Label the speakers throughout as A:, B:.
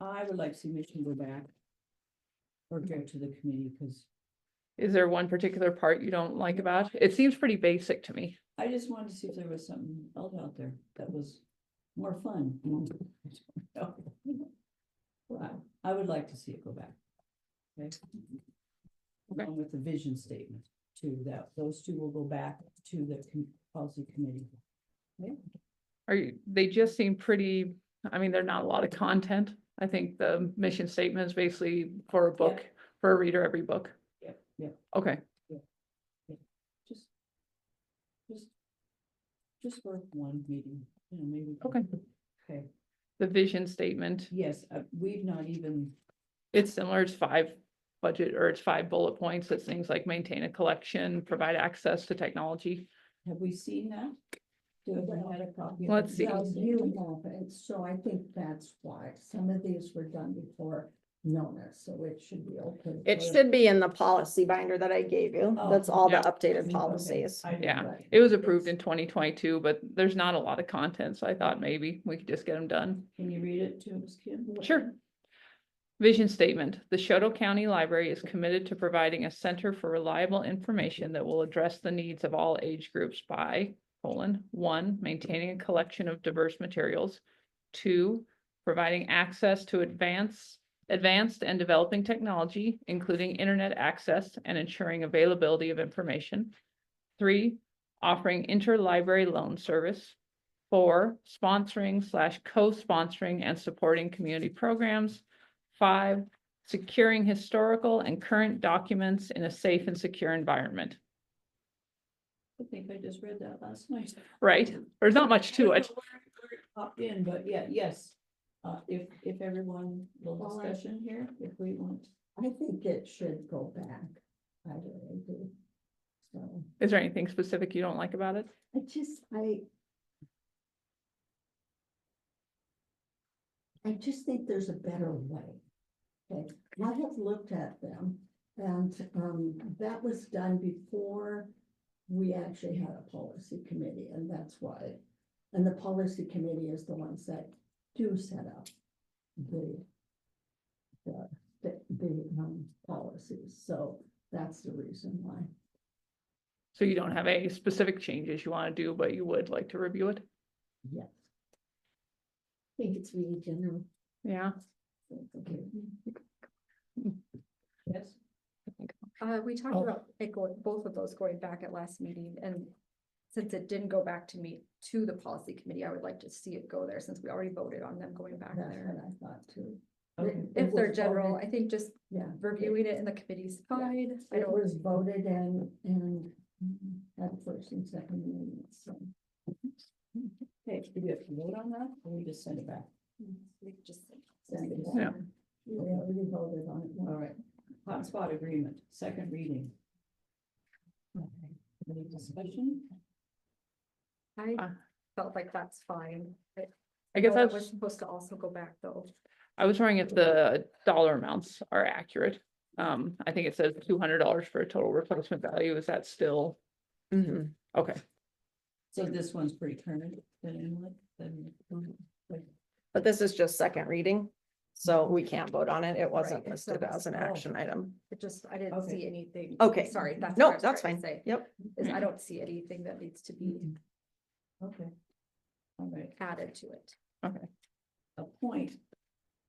A: I would like to see Mission go back. Or go to the committee, because
B: Is there one particular part you don't like about? it? It seems pretty basic to me.
A: I just wanted to see if there was something else out there that was more fun. Well, I would like to see it go back. Okay.
B: Okay.
A: Along with the vision statement too, that those two will go back to the com- policy committee.
B: Are you, they just seem pretty, I mean, they're not a lot of content. I think the mission statement is basically for a book, for a reader, every book.
A: Yep. Yep,
B: Okay,
A: just. Just. Just for one meeting, you know, maybe.
B: Okay.
A: Okay,
B: the vision statement,
A: yes, uh, we've not even,
B: it's similar, it's five budget, or it's five bullet points. It's things like maintain a collection, provide access to technology.
A: have we seen that? Do we have a copy? of
B: Let's
A: it?
B: see.
C: Well, you have, and so I think that's why some of these were done before Nona, so it should be okay.
D: It
C: for-
D: should be in the policy binder that I gave you.
A: Oh,
D: That's all the
B: yeah.
D: updated
A: Okay,
D: policies.
A: I didn't
B: Yeah.
A: write
B: It was approved in twenty twenty-two, but there's not a lot of content, so I thought maybe we could just get them done.
A: Can you read it to us, Kim?
B: Sure. Vision statement, the Shoto County Library is committed to providing a center for reliable information that will address the needs of all age groups by colon, one, maintaining a collection of diverse materials. Two, providing access to advance, advanced and developing technology, including internet access and ensuring availability of information. Three, offering interlibrary loan service. Four, sponsoring slash co-sponsoring and supporting community programs. Five, securing historical and current documents in a safe and secure environment,
A: I think I just read that last night.
B: right? There's not much to
A: I
B: it.
A: don't know where- where it Popped in, but yeah, yes, uh, if, if everyone, little
C: All right.
A: discussion here, if we want.
C: I think it should go back. I really do. So
B: Is there anything specific you don't like about it?
C: I just, I. I just think there's a better way. Okay, I have looked at them and um that was done before. We actually had a policy committee and that's why. And the policy committee is the ones that do set up the. The the the um policies, so that's the reason why.
B: So you don't have any specific changes you want to do, but you would like to review it?
C: Yes. I think it's really general.
B: Yeah.
C: Okay.
A: Mm-hmm. Yes.
E: Uh, we talked
C: Oh.
E: about it going, both of those going back at last meeting and since it didn't go back to me, to the policy committee, I would like to see it go there since we already voted on them going back
C: That's
E: there.
C: what I thought too.
A: Okay.
C: It- it
E: If they're
C: was
E: general,
C: voted-
E: I think just
C: Yeah.
E: reviewing it in the committee's fine. I
C: It
E: don't,
C: was voted and, and had first and second reading, so.
A: Okay, do we have to vote on that, or we just send it back?
E: we could just
C: send it
B: Yeah.
C: back. We already voted on it.
A: All right, hotspot agreement, second reading. Any discussion?
E: I
B: Uh.
E: felt like that's fine. but
B: I guess
E: know
B: I
E: it Was
B: was,
E: supposed to also go back though.
B: I was wondering if the dollar amounts are accurate. Um, I think it says two hundred dollars for a total replacement value. Is that still?
D: Mm-hmm.
B: Okay,
A: So this one's pretty current, then, Emily, then,
D: But this is just second reading, so we can't vote on it. It
E: Right,
D: wasn't
E: so
D: listed
E: that's-
D: as an
E: oh.
D: action item.
E: It just, I didn't
A: Okay.
E: see anything.
D: Okay.
E: Sorry, that's.
D: No,
E: what I was
D: that's
E: trying to
D: fine.
E: say,
D: Yep.
E: Is I don't see anything that needs to be
A: okay. All right,
E: added to it.
A: appoint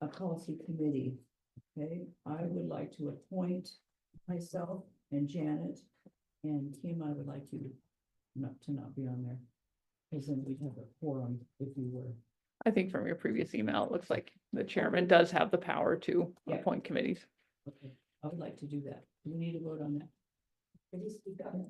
A: a policy committee. Okay, I would like to appoint myself and Janet and Kim, I would like you not to not be on there. Because then we'd have a forum if you were.
B: I think from your previous email, it looks like the chairman does have the power to
A: Yeah.
B: appoint committees.
A: Okay, I would like to do that. Do we need to vote on that?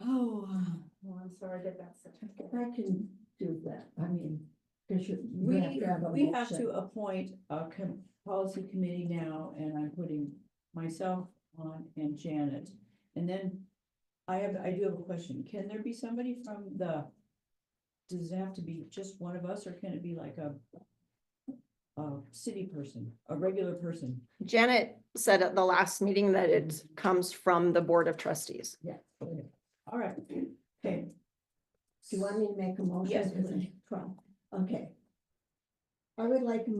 A: Oh,
E: Well, I'm sorry that that's.
C: I can do that, I mean, because you. you
A: we,
C: have to have a
A: we have
C: motion.
A: to appoint a com- policy committee now, and I'm putting myself on and Janet. And then I have, I do have a question. Can there be somebody from the, does it have to be just one of us, or can it be like a a city person, a regular person?
D: Janet said at the last meeting that it comes from the Board of Trustees.
C: Yeah.
A: Okay. All right, okay.
C: Do you want me to make a motion?
A: Yes,
C: Because I- Okay. I would like a